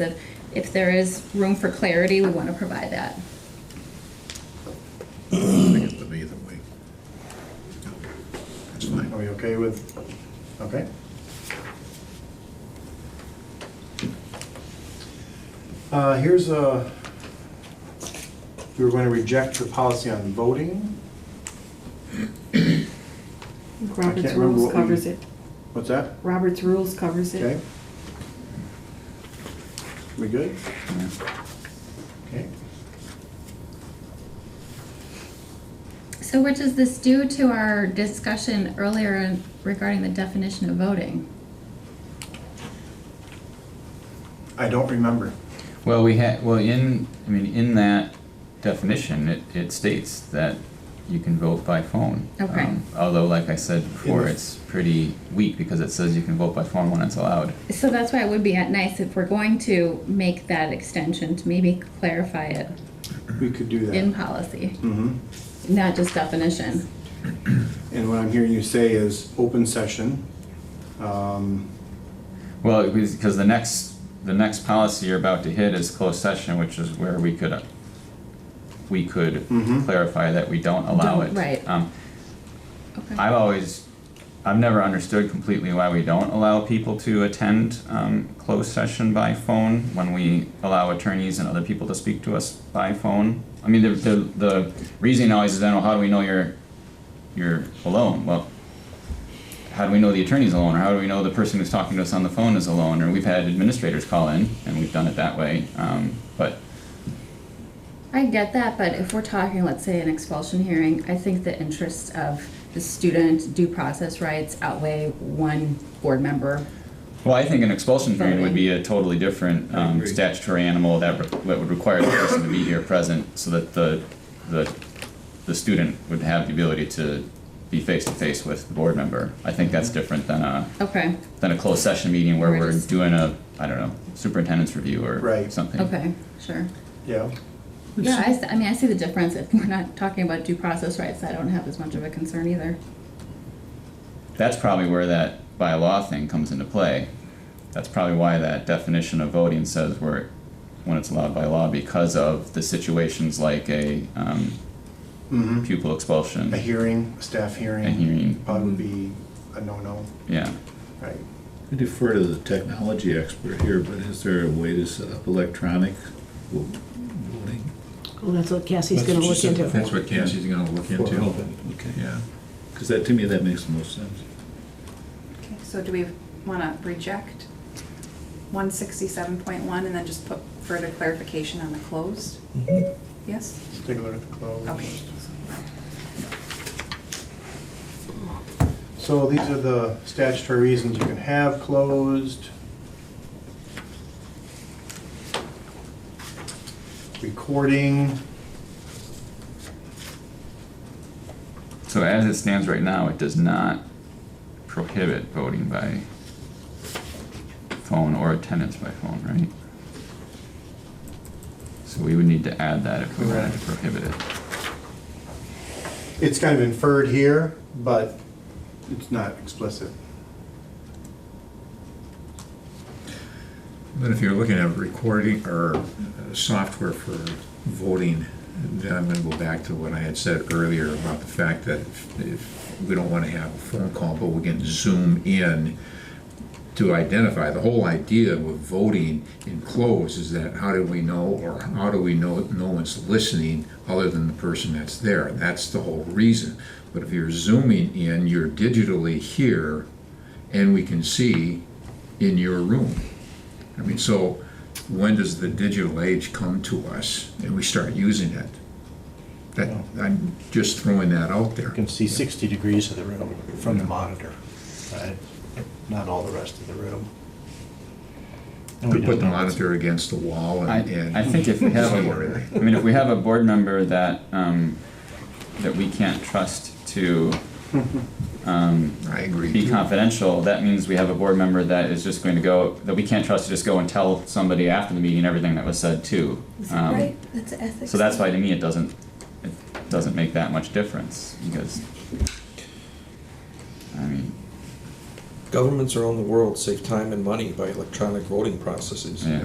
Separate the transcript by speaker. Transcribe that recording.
Speaker 1: that if there is room for clarity, we want to provide that.
Speaker 2: think it's to be either way. That's fine.
Speaker 3: Are we okay with, okay? Uh, here's a, we were going to reject the policy on voting.
Speaker 4: Robert's
Speaker 3: remember
Speaker 4: rules
Speaker 3: what we-
Speaker 4: covers it.
Speaker 3: What's that?
Speaker 4: Robert's rules covers
Speaker 3: Okay?
Speaker 4: it.
Speaker 3: We good? Okay.
Speaker 1: So which is this due to our discussion earlier regarding the definition of voting?
Speaker 3: I don't remember.
Speaker 5: Well, we had, well, in, I mean, in that definition, it, it states that you can vote by phone.
Speaker 1: Okay.
Speaker 5: Um, Although, like I said before,
Speaker 3: the-
Speaker 5: it's pretty weak because it says you can vote by phone when it's allowed.
Speaker 1: So that's why it would be nice if we're going to make that extension to maybe clarify it
Speaker 3: We could do that.
Speaker 1: in policy,
Speaker 3: Mm-hmm.
Speaker 1: not just definition.
Speaker 3: And what I'm hearing you say is open session. Um,
Speaker 5: Well, because the next, the next policy you're about to hit is closed session, which is where we could, uh, we could
Speaker 3: Mhm.
Speaker 5: clarify that we don't allow it.
Speaker 1: Don't- right.
Speaker 5: Um,
Speaker 1: Okay.
Speaker 5: I've always, I've never understood completely why we don't allow people to attend um, closed session by phone when we allow attorneys and other people to speak to us by phone. I mean, the, the, the reasoning always is, then, well, how do we know you're, you're alone? Well, how do we know the attorney's alone, or how do we know the person who's talking to us on the phone is alone? Or we've had administrators call in, and we've done it that way, um, but
Speaker 1: I get that, but if we're talking, let's say, an expulsion hearing, I think the interests of the student due process rights outweigh one board member.
Speaker 5: Well, I think an expulsion hearing would be a totally different
Speaker 2: I
Speaker 5: um,
Speaker 2: agree.
Speaker 5: statutory animal that, re- that would require the person to be here present so that the, the, the student would have the ability to be face to face with the board member. I think
Speaker 2: Mm-hmm.
Speaker 5: that's different than a,
Speaker 1: Okay,
Speaker 5: than a closed session meeting where
Speaker 1: We're
Speaker 5: we're
Speaker 1: just-
Speaker 5: doing a, I don't know, superintendent's review or
Speaker 3: Right.
Speaker 5: something.
Speaker 1: okay, sure.
Speaker 3: yeah.
Speaker 1: Yeah, I, s- I mean, I see the difference. If we're not talking about due process rights, I don't have as much of a concern either.
Speaker 5: That's probably where that by law thing comes into play. That's probably why that definition of voting says where, when it's allowed by law because of the situations like a, um,
Speaker 3: Mm-hmm.
Speaker 5: pupil expulsion.
Speaker 3: A hearing, a staff hearing.
Speaker 5: A hearing.
Speaker 3: Probably would be a no-no,
Speaker 5: Yeah.
Speaker 3: right?
Speaker 2: I defer to the technology expert here, but is there a way to set up electronic vo- voting?
Speaker 6: Well, that's what Cassie's gonna look into.
Speaker 7: That's what Cassie's gonna look
Speaker 2: For
Speaker 7: into.
Speaker 2: open.
Speaker 7: Okay, yeah. Because that, to me, that makes the most sense.
Speaker 8: Okay, so do we want to reject one sixty-seven point one and then just put further clarification on the closed?
Speaker 3: Mm-hmm.
Speaker 8: Yes?
Speaker 3: Let's take a look at the
Speaker 8: Okay.
Speaker 3: close. So these are the statutory reasons you can have closed. Recording,
Speaker 5: So as it stands right now, it does not prohibit voting by phone or attendance by phone, right? So we would need to add that if we wanted to prohibit it.
Speaker 3: it's kind of inferred here, but it's not explicit.
Speaker 7: But if you're looking at recording or uh, software for voting, then I'm gonna go back to what I had said earlier about the fact that if- if, we don't wanna have a phone call, but we can zoom in to identify, the whole idea with voting in close is that how do we know, or how do we know no one's listening other than the person that's there? That's the whole reason. But if you're zooming in, you're digitally here, and we can see in your room. I mean, so when does the digital age come to us and we start using it? That, I'm just throwing that out there.
Speaker 9: You can see 60 degrees of the room from the monitor, right? Not all the rest of the room. And
Speaker 7: We
Speaker 9: we
Speaker 7: put the
Speaker 9: don't know.
Speaker 7: monitor against the wall
Speaker 5: I,
Speaker 7: and. and
Speaker 5: I think if we have
Speaker 7: somewhere in
Speaker 5: a,
Speaker 7: there.
Speaker 5: I mean, if we have a board member that, um, that we can't trust to, um,
Speaker 7: I agree.
Speaker 5: be
Speaker 7: too.
Speaker 5: confidential, that means we have a board member that is just going to go, that we can't trust to just go and tell somebody after the meeting everything that was said too. Um,
Speaker 1: That's ethics.
Speaker 5: So that's why to me it doesn't, it doesn't make that much difference because, I mean,
Speaker 10: Governments around the world save time and money by electronic voting processes.
Speaker 5: yeah.